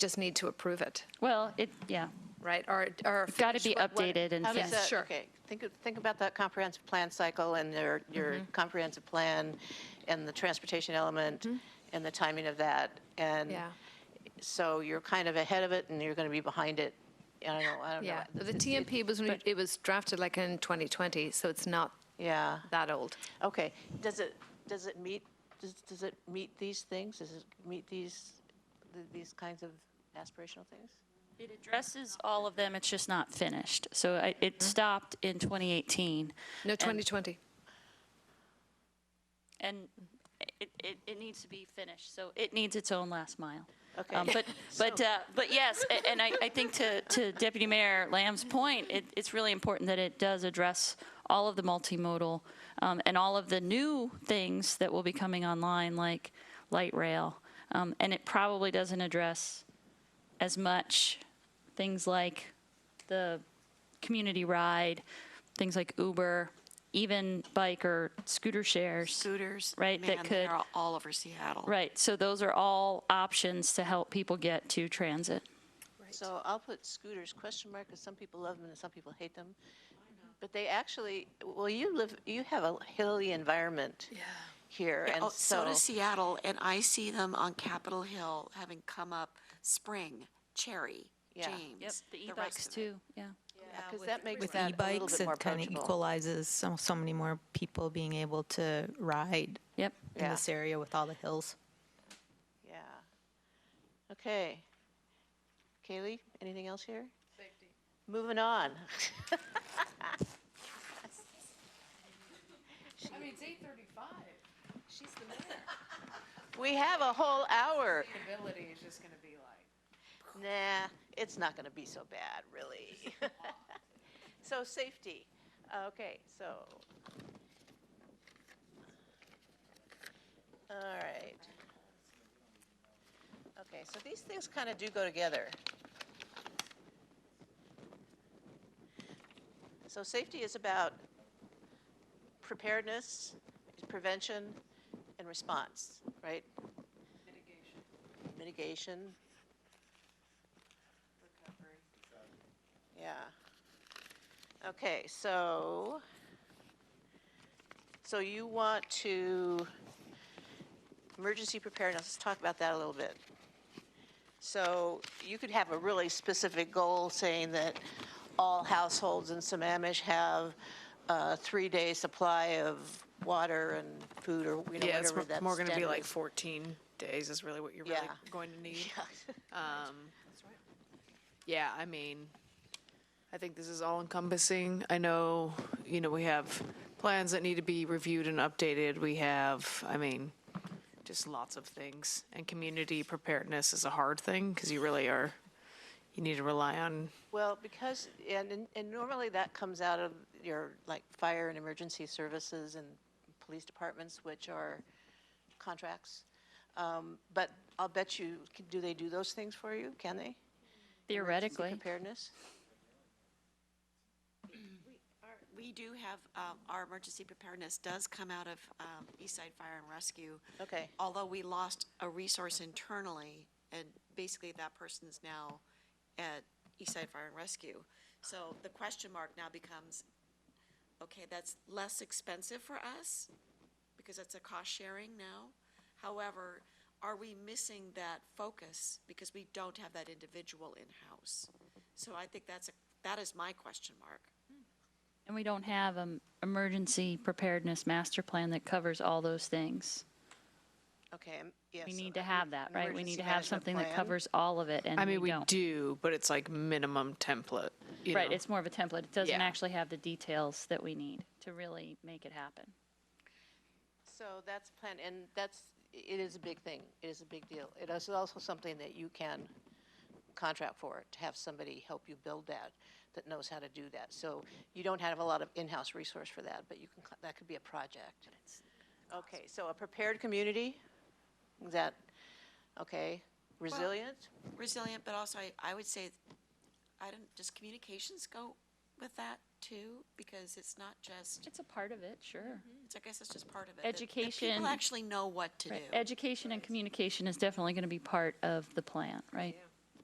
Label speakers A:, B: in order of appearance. A: just need to approve it,
B: Well, it, yeah,
A: right? Or, or.
B: it's got to be
A: finish what- what-
B: updated and
C: How does
B: finished.
C: that-
A: sure.
C: Okay, think, of- think about that comprehensive plan cycle and your, your
B: Mm-hmm.
C: comprehensive plan and the transportation element
B: Mm-hmm.
C: and the timing of that. And
A: Yeah.
C: so you're kind of ahead of it and you're going to be behind it. I don't know, I don't know.
A: Yeah, the TMP was, when it was drafted like in 2020, so it's not
C: Yeah,
A: that old.
C: okay. Does it, does it meet, does, does it meet these things? Does it meet these, th- these kinds of aspirational things?
B: It addresses all of them, it's just not finished. So I- it stopped in 2018.
A: No, 2020.
B: And it, it, it needs to be finished, so it needs its own last mile.
C: Okay.
B: Um, But, but,
C: So-
B: uh, but yes, a- and I, I think to, to Deputy Mayor Lamb's point, it, it's really important that it does address all of the multimodal um, and all of the new things that will be coming online, like light rail. Um, And it probably doesn't address as much things like the community ride, things like Uber, even bike or scooter shares.
D: scooters.
B: Right, that
D: man,
B: could-
D: They're all over Seattle.
B: Right, so those are all options to help people get to transit.
C: So I'll put scooters question mark because some people love them and some people hate them. But they actually, well, you live, you have a hilly environment here,
D: Yeah,
C: and
D: oh,
C: so,
D: so does Seattle, and I see them on Capitol Hill having come up Spring,
C: Yeah.
D: Cherry,
C: Yep,
D: James.
B: The
D: rest
B: e-bikes
D: of it.
B: too, yeah.
C: because that makes
E: With
C: that a little
E: e-bikes,
C: bit more
E: it kind of
C: approachable.
E: equalizes so, so many more people being able to ride
B: Yep.
E: in
C: Yeah.
E: this area with all the hills.
C: Yeah. Okay. Kaylee, anything else here? Moving on.
F: I mean, it's eight thirty-five. She's the mayor.
C: We have a whole hour.
F: Ability is just gonna be like.
C: Nah, it's not going to be so bad, really. so safety. Okay, so. All right. Okay, so these things kind of do go together. So safety is about preparedness, prevention, and response, right? Mitigation. Mitigation. Yeah. Okay, so, so you want to, emergency preparedness, let's talk about that a little bit. So you could have a really specific goal saying that all households in Sammamish have a three-day supply of water and food or, you know,
F: Yeah, it's
C: whatever
F: mo-
C: that's.
F: more gonna be like fourteen days is really what you're really
C: Yeah.
F: going to need.
C: Yeah.
F: Um, yeah, I mean, I think this is all encompassing. I know, you know, we have plans that need to be reviewed and updated. We have, I mean, just lots of things. And community preparedness is a hard thing because you really are, you need to rely on
C: Well, because, and, and- and normally that comes out of your, like, fire and emergency services and police departments, which are contracts. Um, But I'll bet you, c- do they do those things for you? Can they? Emergency
B: Theoretically,
C: Preparedness?
D: Our- We do have, um, our emergency preparedness does come out of um, East Side Fire and Rescue.
C: Okay.
D: Although we lost a resource internally, and basically that person is now at East Side Fire and Rescue. So the question mark now becomes, okay, that's less expensive for us, because that's a cost sharing now. However, are we missing that focus because we don't have that individual in-house? So I think that's, a that is my question mark.
B: and we don't have an emergency preparedness master plan that covers all those things.
C: Okay, um, yes.
B: We
C: so
B: need to
C: em-
B: have that, right? We need
C: emergency
B: to have
C: management
B: something that
C: plan.
B: covers all of it, and
F: I mean,
B: we
F: we
B: don't.
F: do, but it's like minimum template. you
B: Right,
F: know?
B: it's more of a template. It doesn't
F: Yeah.
B: actually have the details that we need to really make it happen.
C: So that's plan, and that's, it is a big thing. It is a big deal. It is also something that you can contract for, to have somebody help you build that, that knows how to do that. So you don't have a lot of in-house resource for that, but you can, cl- that could be a project. Okay, so a prepared community, is that, okay, resilient?
D: resilient, but also I, I would say, I don't, does communications go with that too? Because it's not just,
B: It's a part of it, sure.
C: Mm-hmm.
D: it's, I guess it's just part of it. that- that
B: Education.
D: People actually know what to do.
B: Education and communication is definitely going to be part of the plan, right?